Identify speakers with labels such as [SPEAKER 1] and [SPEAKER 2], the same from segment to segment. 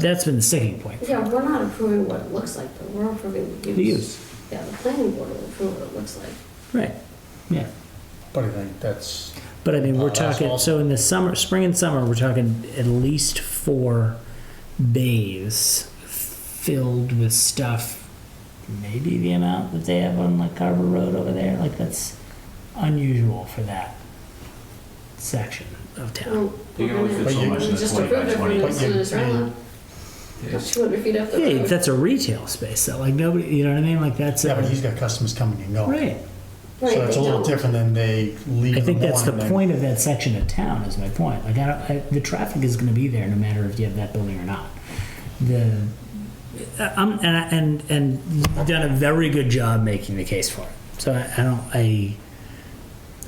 [SPEAKER 1] that's been the sticking point.
[SPEAKER 2] Yeah, we're not approving what it looks like, but we're approving the use.
[SPEAKER 1] The use,
[SPEAKER 2] Yeah, the planning board will approve what it looks like.
[SPEAKER 1] right, yeah.
[SPEAKER 3] But I think that's,
[SPEAKER 1] But I mean, we're
[SPEAKER 3] Uh, that's
[SPEAKER 1] talking, so
[SPEAKER 3] awesome.
[SPEAKER 1] in the summer, spring and summer, we're talking at least four bays filled with stuff. Maybe the amount that they have on like Carver Road over there, like that's unusual for that section of town.
[SPEAKER 2] Well,
[SPEAKER 4] You can only fit
[SPEAKER 2] we're
[SPEAKER 3] so
[SPEAKER 2] gonna-
[SPEAKER 3] much
[SPEAKER 2] we
[SPEAKER 4] in a
[SPEAKER 2] just
[SPEAKER 4] 20 by
[SPEAKER 2] approved it for
[SPEAKER 4] 20.
[SPEAKER 2] the Minnesota Shoreline,
[SPEAKER 4] Yes.
[SPEAKER 2] 200 feet up the
[SPEAKER 1] Yeah,
[SPEAKER 2] road.
[SPEAKER 1] that's a retail space though, like nobody, you know what I mean, like that's
[SPEAKER 3] uh, yeah, but
[SPEAKER 1] a,
[SPEAKER 3] he's got customers coming and going.
[SPEAKER 1] right.
[SPEAKER 2] Right,
[SPEAKER 3] So that's
[SPEAKER 2] they
[SPEAKER 3] a little
[SPEAKER 2] don't.
[SPEAKER 3] different than they leave
[SPEAKER 1] I
[SPEAKER 3] in the
[SPEAKER 1] think that's the
[SPEAKER 3] morning.
[SPEAKER 1] point of that section of town. Is my point. Like, I don't, I, the traffic is going to be there no matter if you have that building or not. The I'm and I, and and you've done a very good job making the case for it. So I, I don't I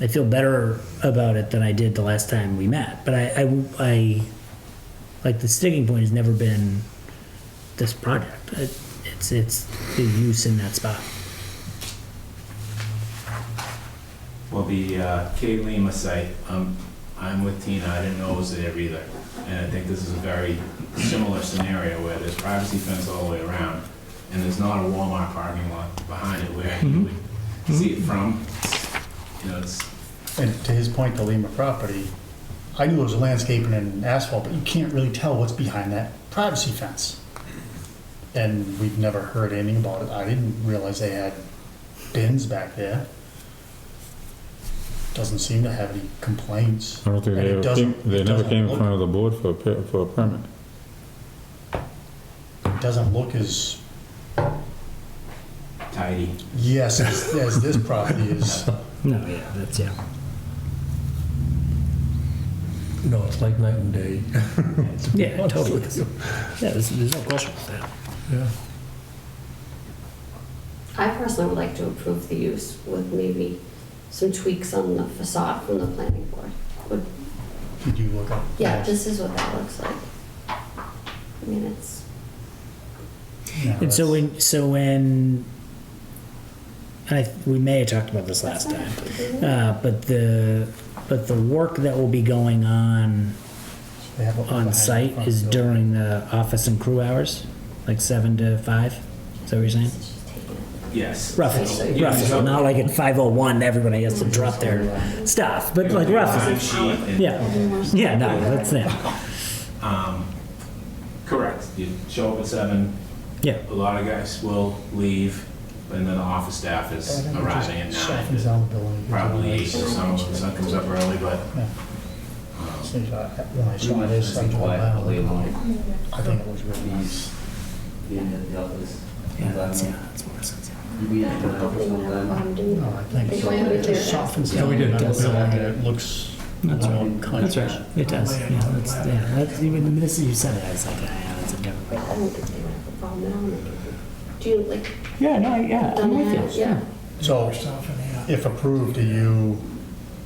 [SPEAKER 1] I feel better about it than I did the last time we met. But I I, I like the sticking point has never been this project. It, it's it's the use in that spot.
[SPEAKER 4] Well, the uh, K Lima site, um, I'm with Tina, I didn't know it was there either. And I think this is a very similar scenario where there's privacy fence all the way around, and there's not a Walmart parking lot behind it where you
[SPEAKER 1] Mm-hmm.
[SPEAKER 4] would see it from. You know, it's,
[SPEAKER 3] And to his point, the Lima property, I knew it was landscaping and asphalt, but you can't really tell what's behind that privacy fence. And we've never heard anything about it. I didn't realize they had bins back there. Doesn't seem to have any complaints.
[SPEAKER 5] I don't think
[SPEAKER 3] And
[SPEAKER 5] they
[SPEAKER 3] it
[SPEAKER 5] ever came,
[SPEAKER 3] doesn't-
[SPEAKER 5] they never
[SPEAKER 3] doesn't
[SPEAKER 5] came in
[SPEAKER 3] look-
[SPEAKER 5] front of the board for a, per- for a permit.
[SPEAKER 1] Hmm.
[SPEAKER 3] it Doesn't look as,
[SPEAKER 4] tidy.
[SPEAKER 3] yes, as as this property is.
[SPEAKER 1] No, yeah, that's yeah.
[SPEAKER 6] No, it's like night and day.
[SPEAKER 1] Yeah, totally. Yeah, there's, there's no question about that.
[SPEAKER 6] Yeah.
[SPEAKER 2] I personally would like to approve the use with maybe some tweaks on the facade from the planning board. Would-
[SPEAKER 3] Did you look up?
[SPEAKER 2] Yeah, this is what that looks like. I mean, it's,
[SPEAKER 3] No,
[SPEAKER 1] And so
[SPEAKER 3] that's-
[SPEAKER 1] when, so when, and I, we may have talked about this last time, uh, but the, but the work that will be going on
[SPEAKER 3] they have it
[SPEAKER 1] on
[SPEAKER 3] behind
[SPEAKER 1] site
[SPEAKER 3] the front
[SPEAKER 1] is
[SPEAKER 3] door.
[SPEAKER 1] during the office and crew hours, like seven to five? Is that what you're saying?
[SPEAKER 2] it's just taking it.
[SPEAKER 4] Yes. So you
[SPEAKER 1] Roughly,
[SPEAKER 4] can
[SPEAKER 1] roughly,
[SPEAKER 4] tell-
[SPEAKER 1] not like at five oh one, everybody has to drop their stuff, but like
[SPEAKER 4] Time
[SPEAKER 1] roughly,
[SPEAKER 4] sheet and-
[SPEAKER 1] yeah, yeah, no, that's it,
[SPEAKER 4] Um, Correct, you show up at seven,
[SPEAKER 1] yeah.
[SPEAKER 4] a lot of guys will leave, and then the office staff is
[SPEAKER 3] Yeah, I think it just
[SPEAKER 4] arriving at
[SPEAKER 3] Softens
[SPEAKER 4] nine.
[SPEAKER 3] down the building.
[SPEAKER 4] Probably eight, or some, sun comes up early, but
[SPEAKER 3] So, uh, When I saw this, I thought, wow, I think it was really nice.
[SPEAKER 1] Yeah, that's, yeah, that's more sense.
[SPEAKER 2] I'm doing-
[SPEAKER 3] No, Oh, I think
[SPEAKER 2] They
[SPEAKER 3] so.
[SPEAKER 2] went
[SPEAKER 3] It
[SPEAKER 2] with
[SPEAKER 3] just
[SPEAKER 2] it.
[SPEAKER 3] softens
[SPEAKER 6] Yeah,
[SPEAKER 3] down.
[SPEAKER 6] we did.
[SPEAKER 3] the building and It looks.
[SPEAKER 1] That's
[SPEAKER 3] more
[SPEAKER 1] right.
[SPEAKER 3] clean.
[SPEAKER 1] That's right. It does. Yeah, that's, yeah, that's, even the minute you said it, I was like, ah, yeah, that's a different.
[SPEAKER 2] I don't think they would have a problem now. and they could- Do you like?
[SPEAKER 1] Yeah, no, yeah, I'm with you.
[SPEAKER 2] Yeah.
[SPEAKER 3] So if approved, are you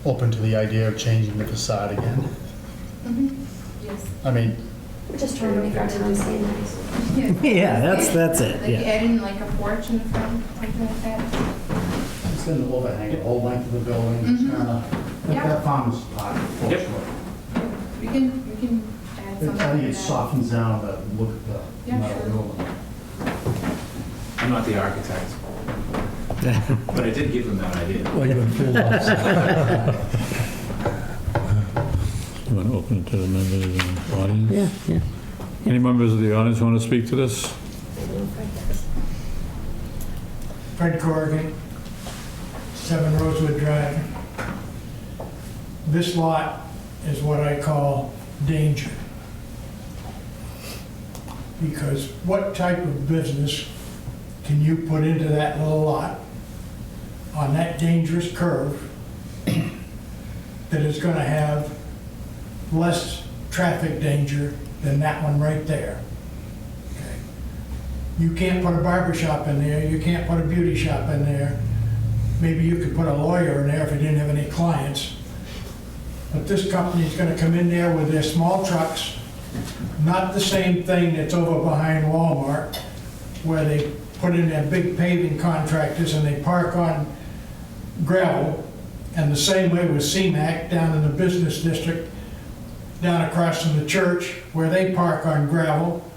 [SPEAKER 3] open to the idea of changing the facade again?
[SPEAKER 7] Mm-hmm.
[SPEAKER 3] I mean,
[SPEAKER 2] We're just trying to make our town seem nice.
[SPEAKER 1] Yeah, that's, that's it,
[SPEAKER 7] Like
[SPEAKER 1] yeah.
[SPEAKER 7] adding like a porch in the front, something like that.
[SPEAKER 3] it's going to overhang the whole length of the building. It's
[SPEAKER 7] Mhm.
[SPEAKER 3] gonna- like
[SPEAKER 7] Yeah.
[SPEAKER 3] That farmer's pot, for
[SPEAKER 4] Yep.
[SPEAKER 3] sure.
[SPEAKER 7] We can, we can add something.
[SPEAKER 3] I think it
[SPEAKER 7] like that.
[SPEAKER 3] softens down the look of the
[SPEAKER 7] Yeah,
[SPEAKER 3] metal
[SPEAKER 7] sure.
[SPEAKER 3] building.
[SPEAKER 4] I'm not the architect. But I did give them that idea.
[SPEAKER 6] Well, you're in full office.
[SPEAKER 5] You want to open it to the members of the audience?
[SPEAKER 1] Yeah, yeah.
[SPEAKER 5] Any members of the audience want to speak to this?
[SPEAKER 8] Fred Corrigan, Seven Rosewood Drive. This lot is what I call danger. Because what type of business can you put into that little lot on that dangerous curve that is gonna have less traffic danger than that one right there? Okay. You can't put a barber shop in there, you can't put a beauty shop in there. Maybe you could put a lawyer in there if you didn't have any clients. But this company's gonna come in there with their small trucks, not the same thing that's over behind Walmart, where they put in their big paving contractors and they park on gravel. And the same way with CMAC down in the business district, down across from the church, where they park on gravel